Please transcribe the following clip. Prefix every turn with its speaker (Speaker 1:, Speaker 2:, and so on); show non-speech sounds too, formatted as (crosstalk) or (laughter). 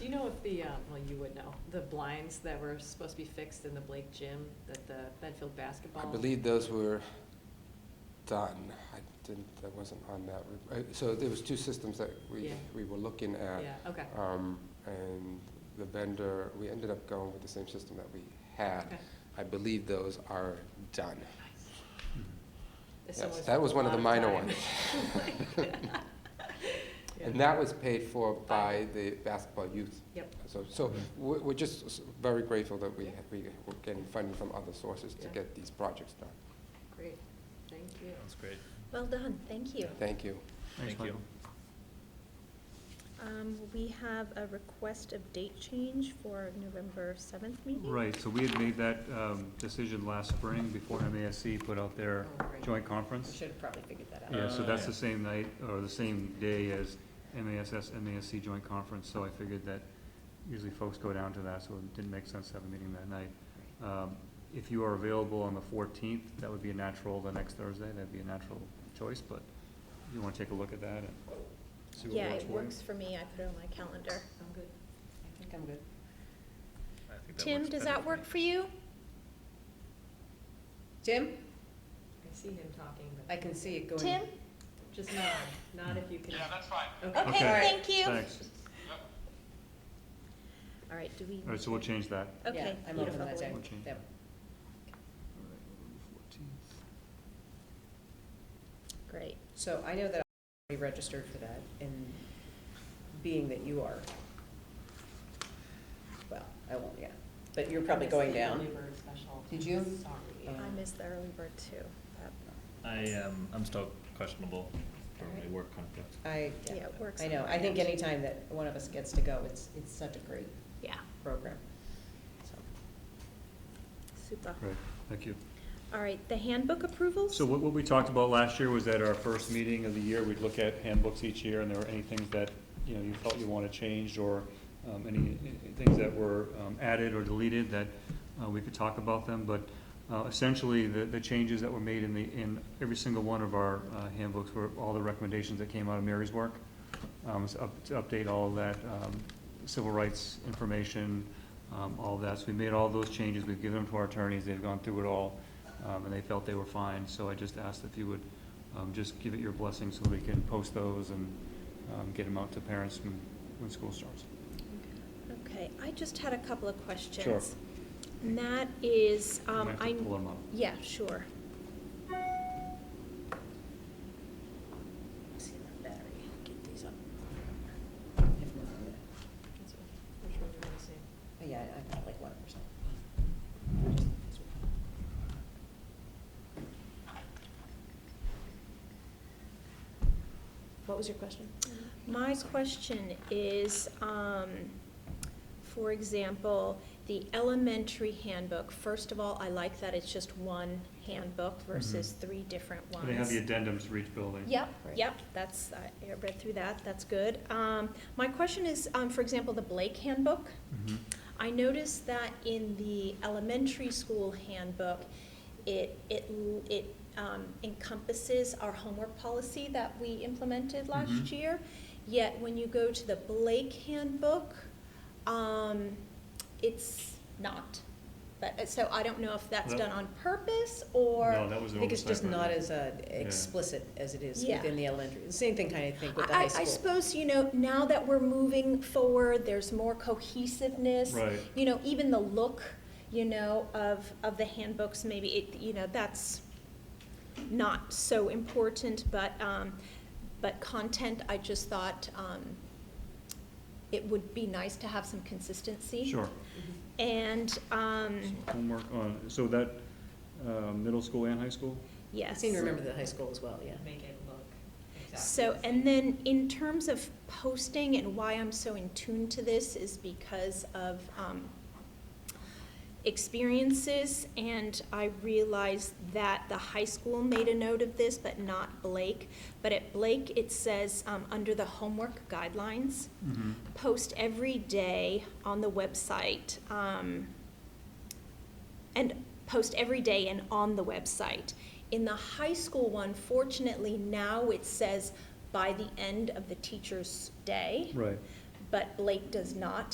Speaker 1: the, um, well, you would know, the blinds that were supposed to be fixed in the Blake gym, that the Benfield basketball?
Speaker 2: I believe those were done. I didn't, I wasn't on that. re- uh, So there was two systems that we,
Speaker 1: Yeah.
Speaker 2: we were looking at.
Speaker 1: Yeah, okay,
Speaker 2: Um, And the vendor, we ended up going with the same system that we had.
Speaker 1: okay.
Speaker 2: I believe those are done.
Speaker 1: This
Speaker 2: Hmm. Yes,
Speaker 1: one
Speaker 2: that was
Speaker 1: a
Speaker 2: one of the
Speaker 1: lot time.
Speaker 2: minor ones.
Speaker 1: (laughs) Yeah. (laughs)
Speaker 2: And that was paid for
Speaker 1: By-
Speaker 2: by the basketball youth.
Speaker 1: Yep.
Speaker 2: So, so
Speaker 1: Mm-hmm.
Speaker 2: we're, we're just s- very grateful that we,
Speaker 1: Yeah.
Speaker 2: we were getting funding from other sources to
Speaker 1: Yeah.
Speaker 2: get these projects done.
Speaker 1: Great, thank you.
Speaker 3: Sounds great.
Speaker 4: Well done, thank you.
Speaker 2: Thank you.
Speaker 3: Thank you.
Speaker 4: Um, We have a request of date change for November 7th meeting.
Speaker 5: Right, so we had made that um, decision last spring before MASC put out their
Speaker 1: Oh, great.
Speaker 5: joint
Speaker 1: I
Speaker 5: conference.
Speaker 1: Should have probably figured that out.
Speaker 5: Yeah, so
Speaker 3: Uh,
Speaker 5: that's
Speaker 3: yeah.
Speaker 5: the same night, or the same day as MASS, MASC joint conference, so I figured that usually folks go down to that, so it didn't make sense to have a meeting that night. Um, If you are available on the fourteenth, that would be a natural, the next Thursday, that'd be a natural choice, but you wanna take a look at that and see what works for you?
Speaker 4: Yeah, it works for me, I put it on my calendar.
Speaker 1: I'm good, I think I'm good.
Speaker 3: I think that
Speaker 4: Tim,
Speaker 3: works
Speaker 4: does
Speaker 3: better
Speaker 4: that work
Speaker 3: me.
Speaker 4: for you?
Speaker 6: Tim?
Speaker 1: I see him talking, but.
Speaker 6: I can see it going.
Speaker 4: Tim?
Speaker 1: Just nod, nod if you can.
Speaker 7: Yeah, that's fine.
Speaker 4: Okay, thank you.
Speaker 5: Thanks.
Speaker 4: All right, do we?
Speaker 5: All right, so we'll change that.
Speaker 4: Okay,
Speaker 6: Yeah, I'm open
Speaker 4: beautiful.
Speaker 6: that day.
Speaker 5: We'll change
Speaker 6: That-
Speaker 4: Great.
Speaker 6: So I know that I already registered for that, and being that you are, well, I won't, yeah, but you're probably going down. Did you?
Speaker 1: Sorry.
Speaker 6: Um,
Speaker 4: I missed the early bird too. That-
Speaker 3: I, um, I'm still questionable for my work conflict.
Speaker 6: I,
Speaker 4: Yeah, it works
Speaker 6: I know,
Speaker 4: on
Speaker 6: I
Speaker 4: my
Speaker 6: think
Speaker 4: end.
Speaker 6: anytime that one of us gets to go, it's, it's such a great
Speaker 4: Yeah,
Speaker 6: program, so.
Speaker 4: super.
Speaker 5: Right, thank you.
Speaker 4: All right, the handbook approvals?
Speaker 5: So what, what we talked about last year was at our first meeting of the year, we'd look at handbooks each year, and there were any things that, you know, you felt you wanted changed, or um, any, any things that were um, added or deleted, that uh, we could talk about them, but uh, essentially, the, the changes that were made in the, in every single one of our uh, handbooks were all the recommendations that came out of Mary's work. Um, so up, to update all of that, um, civil rights information, um, all of that, so we made all those changes, we've given them to our attorneys, they've gone through it all, um, and they felt they were fine, so I just asked if you would, um, just give it your blessing so we can post those and, um, get them out to parents when, when school starts.
Speaker 4: Okay, I just had a couple of questions.
Speaker 5: Sure.
Speaker 4: And that is,
Speaker 5: You
Speaker 4: um,
Speaker 5: might have to
Speaker 4: I.
Speaker 5: pull 'em up.
Speaker 4: Yeah, sure.
Speaker 6: See my battery, get these up.
Speaker 1: That's okay. Which one do you wanna see?
Speaker 6: Yeah, I've got like one percent. What was your question?
Speaker 4: My question is, um, for example, the elementary handbook, first of all, I like that it's just one handbook versus three different ones.
Speaker 5: Mm-hmm. They have the addendums for each building.
Speaker 4: Yep,
Speaker 6: Right.
Speaker 4: yep, that's, I I read through that, that's good. Um, my question is, um, for example, the Blake handbook.
Speaker 5: Mhm.
Speaker 4: I noticed that in the elementary school handbook, it, it, l- it um, encompasses our homework policy that we implemented last
Speaker 5: Mhm.
Speaker 4: year. Yet when you go to the Blake handbook, um, it's not. But, uh, so I don't know if that's
Speaker 5: No.
Speaker 4: done on purpose or.
Speaker 5: No, that was
Speaker 6: I
Speaker 5: an
Speaker 6: think it's just
Speaker 5: oversight by
Speaker 6: not
Speaker 5: them.
Speaker 6: as uh, explicit as it is
Speaker 4: Yeah.
Speaker 6: within the elementary, the same thing kind of thing with the
Speaker 4: I-
Speaker 6: high
Speaker 4: I
Speaker 6: school.
Speaker 4: suppose, you know, now that we're moving forward, there's more cohesiveness.
Speaker 5: Right.
Speaker 4: You know, even the look, you know, of, of the handbooks, maybe, it, you know, that's not so important, but, um, but content, I just thought, um, it would be nice to have some consistency.
Speaker 5: Sure.
Speaker 4: And, um,
Speaker 5: So
Speaker 6: Mm-hmm.
Speaker 5: Homework on, so that, uh, middle school and high school?
Speaker 6: I
Speaker 4: yes.
Speaker 6: seem to remember the high school as well, yeah.
Speaker 1: Make it look exactly.
Speaker 4: So,
Speaker 1: the same.
Speaker 4: and then in terms of posting and why I'm so in tune to this is because of um, experiences. And I realized that the high school made a note of this, but not Blake. But at Blake, it says, um, under the homework guidelines,
Speaker 5: Mm-hmm.
Speaker 4: post every day on the website. um, and post every day and on the website. In the high school one, fortunately, now it says by the end of the teacher's day,
Speaker 5: Right.
Speaker 4: but Blake does not.